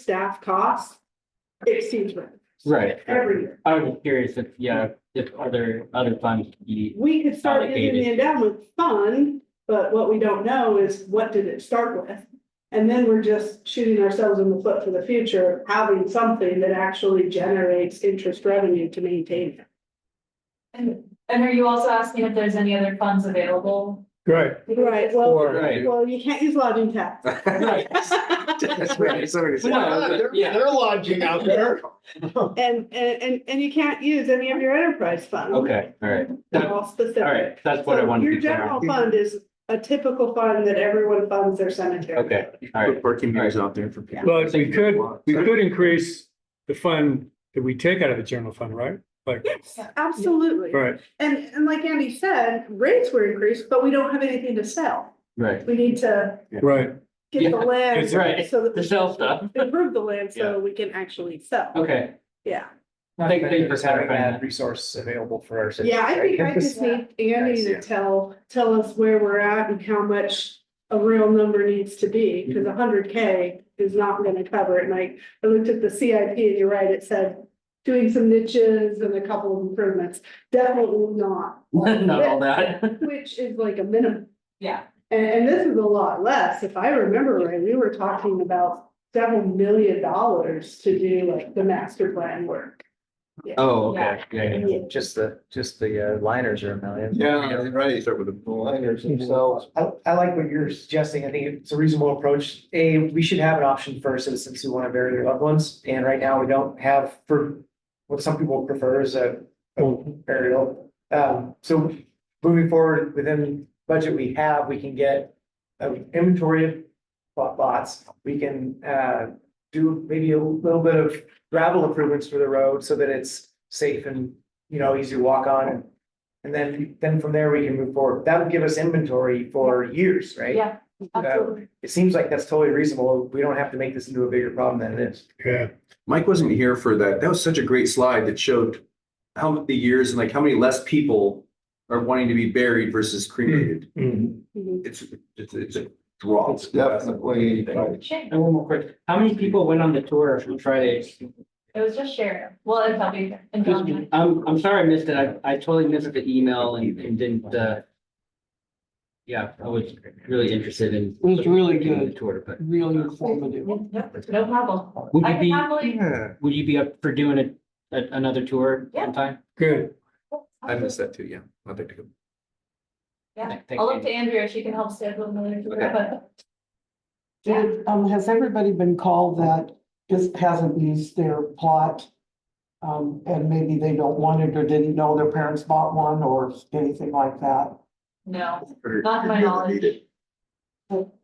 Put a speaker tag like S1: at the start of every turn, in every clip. S1: staff costs exceeds rent
S2: Right,
S1: every year.
S2: I was curious if, yeah, if other, other funds could be,
S1: We could start using the
S2: Allocated.
S1: endowment fund, but what we don't know is what did it start with? And then we're just shooting ourselves in the foot for the future, of having something that actually generates interest revenue to maintain it.
S3: And, and are you also asking if there's any other funds available?
S4: Right.
S1: Right, well,
S2: Right.
S1: well, you can't use lodging tax.
S2: right, No, but yeah.
S4: They're lodging out there.
S1: And, and, and, and you can't use any of your enterprise funds.
S2: okay, all right,
S1: They're all specific.
S2: all right, that's what I
S1: So
S2: wanted to
S1: Your
S2: be clear
S1: general
S2: on.
S1: fund is a typical fund that everyone funds their cemetery.
S2: Okay, all right,
S5: Parking
S2: meters
S5: out there for people.
S4: But we could, we could increase the fund that we take out of the general fund, right? Like,
S1: Yes, absolutely.
S4: right,
S1: And, and like Andy said, rates were increased, but we don't have anything to sell.
S2: right,
S1: We need to
S4: right.
S1: get the
S2: Yeah,
S1: land.
S2: that's right.
S1: So that
S2: the
S1: we
S2: sell stuff,
S1: improve the land
S2: Yeah.
S1: so we can actually sell.
S2: okay,
S1: Yeah.
S2: Thank- thank you for
S6: having
S2: clarifying that.
S6: that resource available for our. citizens,
S1: Yeah, I think I
S6: right?
S1: just need Andy
S6: Nice,
S1: to
S6: yeah.
S1: tell, tell us where we're at and how much a real number needs to be, because
S2: Mm-hmm.
S1: a hundred K is not gonna cover it. And I, I looked at the CIP and you're right, it said doing some niches and a couple of improvements. Definitely not,
S2: not all that,
S1: which is like a minimum.
S3: Yeah.
S1: And, and this is a lot less. If I remember right, we were talking about several million dollars to do like the master plan work.
S2: oh, okay, yeah, yeah, yeah.
S6: Just the, just the uh, liners are a million.
S5: right. Start with the liners
S6: So I, I like what you're suggesting. I think it's a reasonable approach. A, we should have an option for citizens who want to bury their loved ones. And right now we don't have for what some people prefer is a burial. Um, so moving forward within budget we have, we can get an inventory of lot- lots. We can, uh, do maybe a little bit of gravel improvements for the road so that it's safe and, you know, easy to walk on. And and then, then from there we can move forward. That would give us inventory for years, right?
S3: Yeah, absolutely.
S6: It seems like that's totally reasonable. We don't have to make this into a bigger problem than it is.
S4: Yeah.
S5: Mike wasn't here for that. That was such a great slide that showed how many years and like how many less people are wanting to be buried versus
S4: Hmm.
S5: cremated. It's, it's, it's a draw. It's definitely.
S3: Shame.
S2: And one more quick, how many people went on the tour from Friday?
S3: It was just shared. Well, it's not being.
S2: I'm, I'm sorry I missed it, I, I totally missed the email and, and didn't, uh. Yeah, I was really interested in.
S7: It was really
S2: doing the
S7: good.
S2: Tour, but
S7: really informative.
S3: No problem.
S2: would
S3: I
S2: you
S3: can
S2: be,
S3: happily.
S2: would you be up for doing a, a- another tour
S3: Yeah.
S2: sometime?
S4: Good.
S5: I missed that too, yeah. I'd like to go.
S3: Yeah,
S2: Thank
S3: I'll
S2: you.
S3: look to Andrea. She can help schedule another tour,
S5: Okay.
S3: but
S7: Did, um, has everybody been called that just hasn't used their plot? Um, and maybe they don't want it or didn't know their parents bought one or anything like that.
S3: no, not to my knowledge.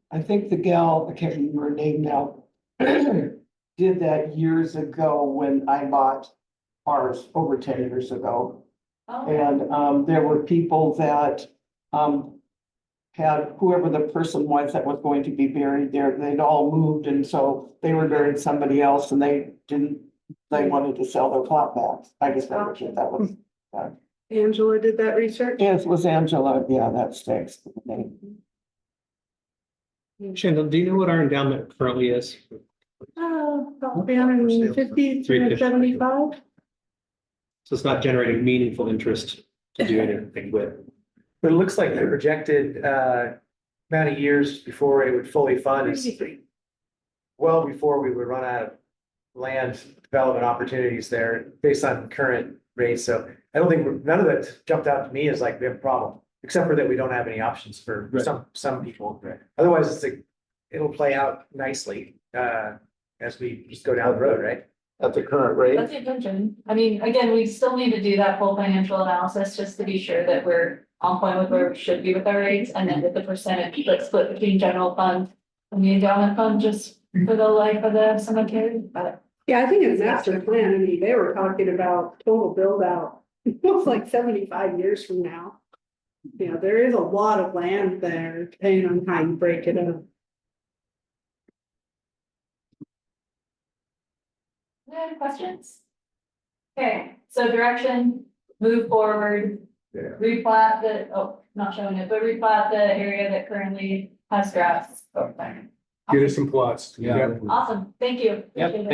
S7: I think the gal, I can't remember her name now, did that years ago when I bought ours over ten years ago.
S3: Oh,
S7: And um, there were people that um. Had whoever the person was that was going to be buried there, they'd all moved and so they were buried somebody else and they didn't. They wanted to sell their plot back. I guess that was, that was,
S1: Angela did that research.
S7: yes, it was Angela, yeah, that sticks. the name.
S8: Shandon, do you know what our endowment currently is?
S1: Oh, about three hundred and fifty, three hundred and seventy-five.
S8: So it's not generating meaningful interest to do anything with.
S6: But it looks like the projected uh amount of years before it would fully fund is well before we would run out of land development opportunities there based on current rates. So I don't think, we're- none of that jumped out to me as like we have a problem, except for that we don't have any options for
S2: Right.
S6: some, some people. Otherwise, it's like, it'll play out nicely uh as we just go down the road, right?
S5: At the current rate.
S3: that's the intention. I mean, again, we still need to do that full financial analysis just to be sure that we're on point with where we should be with our rates and then with the percentage, like split between general fund and the endowment fund, just for the life of the cemetery, but.
S1: Yeah, I think in the master plan, I mean, they were talking about total build out, it was like seventy-five years from now. You know, there is a lot of land there, depending on how you break it up.
S3: Any other questions? Okay, so direction, move forward.
S5: Yeah.
S3: Replat the, oh, not showing it, but replat the area that currently has grass over there.
S9: get us some plots.
S4: Yeah.
S3: Awesome, thank you.
S4: Yep,
S3: Appreciate it.